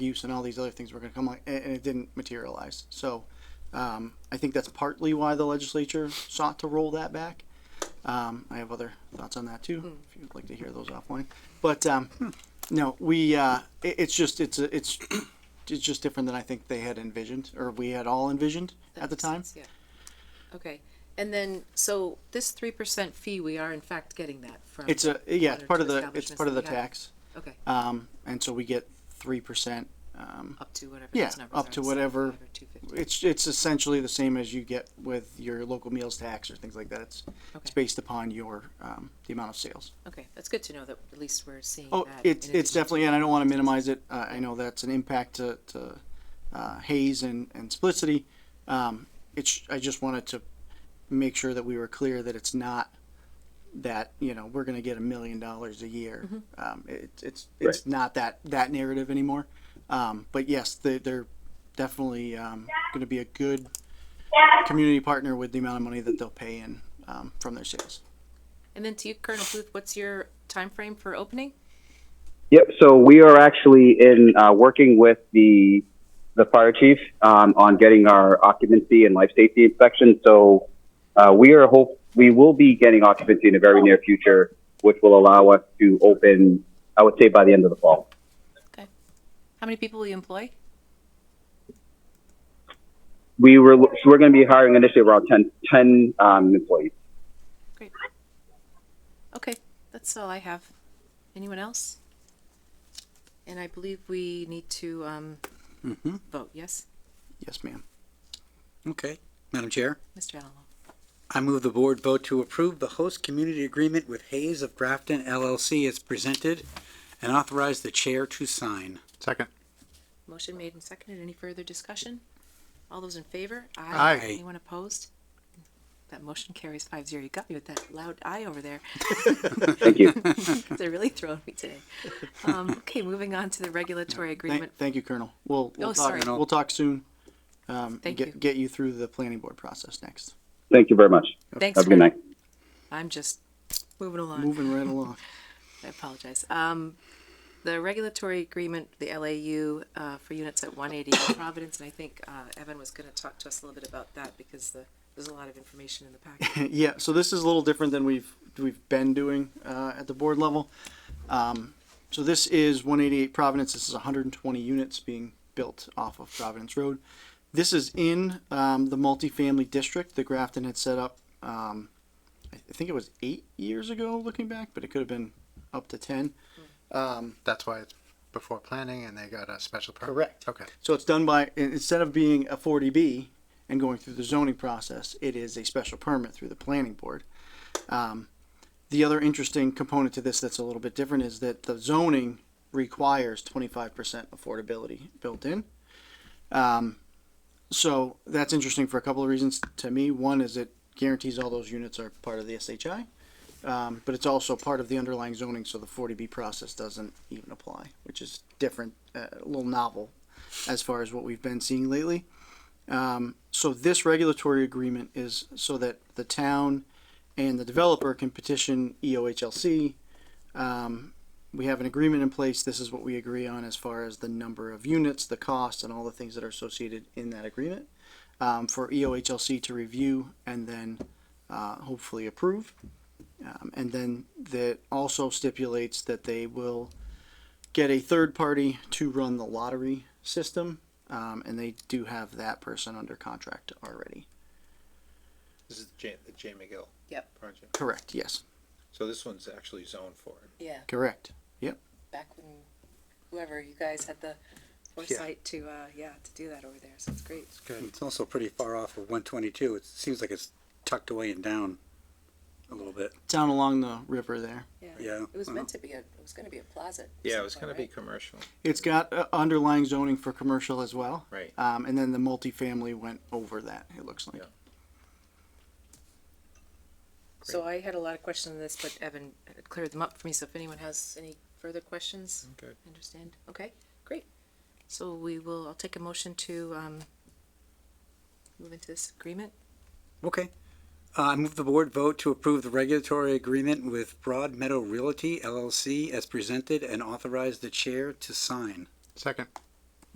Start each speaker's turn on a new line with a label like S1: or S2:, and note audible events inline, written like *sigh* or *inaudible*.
S1: use and all these other things were going to come like, and and it didn't materialize. So um, I think that's partly why the legislature sought to roll that back. Um, I have other thoughts on that
S2: Hmm.
S1: too, if you'd like to hear those offline. But um, no, we uh, it, it's just it's a, it's it's just different than I think they had envisioned or we had all envisioned
S2: That
S1: at the
S2: makes
S1: time.
S2: sense, yeah. Okay, and then, so this three percent fee, we are in fact getting that from.
S1: It's a yeah, it's
S2: other
S1: part of
S2: two
S1: the it's
S2: establishments
S1: part of the
S2: that we have.
S1: tax,
S2: Okay,
S1: um, and so we get three percent. Um,
S2: up to whatever
S1: yeah,
S2: those numbers are.
S1: up to whatever
S2: 75 or 250.
S1: it's it's essentially the same as you get with your local meals tax or things like that. It's it's
S2: Okay.
S1: based upon your um, the amount of sales.
S2: Okay, that's good to know that at least we're seeing that.
S1: Oh, it's
S2: in
S1: it's
S2: addition to-
S1: definitely, and I don't want to minimize it. Uh, I know that's an impact to to uh, Hayes and and Splicity. Um, it's I just wanted to make sure that we were clear that it's not that you know we're going to get a million dollars a year.
S2: Mm-hmm.
S1: Um, it, it's it's not that that narrative anymore. Um, but yes, they, they're definitely um, going to be a good community partner with the amount of money that they'll pay in um, from their sales.
S2: And then to you, Colonel Booth, what's your time frame for opening?
S3: Yep. So we are actually in uh, working with the the fire chief um, on getting our occupancy and life safety inspection. So uh, we are hope we will be getting occupancy in the very near future, which will allow us to open. I would say by the end of the fall.
S2: How many people will you employ?
S3: We were so we're going to be hiring initially around 10, 10 um, employees.
S2: Great. Okay, that's all I have. Anyone else? And I believe we need to, um,
S1: Mm-hmm.
S2: vote, yes?
S1: Yes, ma'am.
S4: Okay, Madam Chair,
S2: Mr. Alamo?
S4: I move the board vote to approve the host community agreement with Hayes of Grafton LLC as presented and authorize the chair to sign.
S5: Second.
S2: Motion made and seconded. Any further discussion? All those in favor?
S5: Aye.
S2: Anyone opposed? That motion carries five zero. You got me with that loud aye over
S1: *laughs*
S2: there.
S3: Thank you.
S2: They're really throwing me today. Um, okay, moving on to the regulatory agreement.
S1: Thank, thank you, Colonel. We'll, we'll
S2: Oh,
S1: talk,
S2: sorry.
S1: we'll talk soon. Um, and
S2: Thank
S1: get,
S2: you.
S1: get you through the planning board process next.
S3: Thank you very much.
S2: Thanks.
S3: Have a good
S2: for-
S3: night.
S2: I'm just moving along.
S1: Moving right
S2: *laughs*
S1: along.
S2: I apologize. Um, the regulatory agreement, the LAU, uh, for units at one eighty Providence, and I think, uh, Evan was gonna talk to us a little bit about that because the, there's a lot of information in the
S1: *laughs*
S2: packet.
S1: yeah, so this is a little different than we've we've been doing uh, at the board level. Um, so this is 188 Providence. This is 120 units being built off of Providence Road. This is in um, the multifamily district that Grafton had set up. Um, I I think it was eight years ago, looking back, but it could have been up to ten. Um,
S5: That's why it's before planning and they got a special permit.
S1: Correct.
S5: Okay.
S1: So it's done by, in- instead of being a forty B and going through the zoning process, it is a special permit through the planning board. Um, The other interesting component to this that's a little bit different is that the zoning requires twenty-five percent affordability built in. Um, So that's interesting for a couple of reasons to me. One is it guarantees all those units are part of the SHI. Um, but it's also part of the underlying zoning, so the forty B process doesn't even apply, which is different, uh, a little novel as far as what we've been seeing lately. Um, so this regulatory agreement is so that the town and the developer can petition E EOHLC. Um, we have an agreement in place. This is what we agree on as far as the number of units, the cost, and all the things that are associated in that agreement um, for EOHLC to review and then uh, hopefully approve. Um, and then that also stipulates that they will get a third party to run the lottery system, um, and they do have that person under contract already.
S6: This is J, the J McGill
S2: Yep.
S6: project.
S1: Correct. Yes.
S6: So this one's actually zoned for it.
S2: Yeah.
S1: Correct.
S2: back when whoever you guys had the foresight to uh yeah to do that over there so it's great
S4: It's also pretty far off of one twenty-two. It seems like it's tucked away and down a little bit.
S1: Down along the river there.
S2: yeah
S4: Yeah,
S2: it was
S4: I
S2: meant to be a it was going to be a plaza at
S6: Yeah,
S2: some
S6: it was
S2: point,
S6: gonna be
S2: right?
S6: commercial,
S1: It's got uh, underlying zoning for commercial as well.
S6: right?
S1: Um, and then the multifamily went over that. It looks like.
S6: Yeah.
S2: so i had a lot of questions on this but evan cleared them up for me so if anyone has any further questions
S6: Good.
S2: i understand okay great so we will i'll take a motion to um move into this agreement
S4: Okay. Uh, I move the board vote to approve the regulatory agreement with Broad Meadow Realty LLC as presented and authorize the chair to sign.
S5: Second.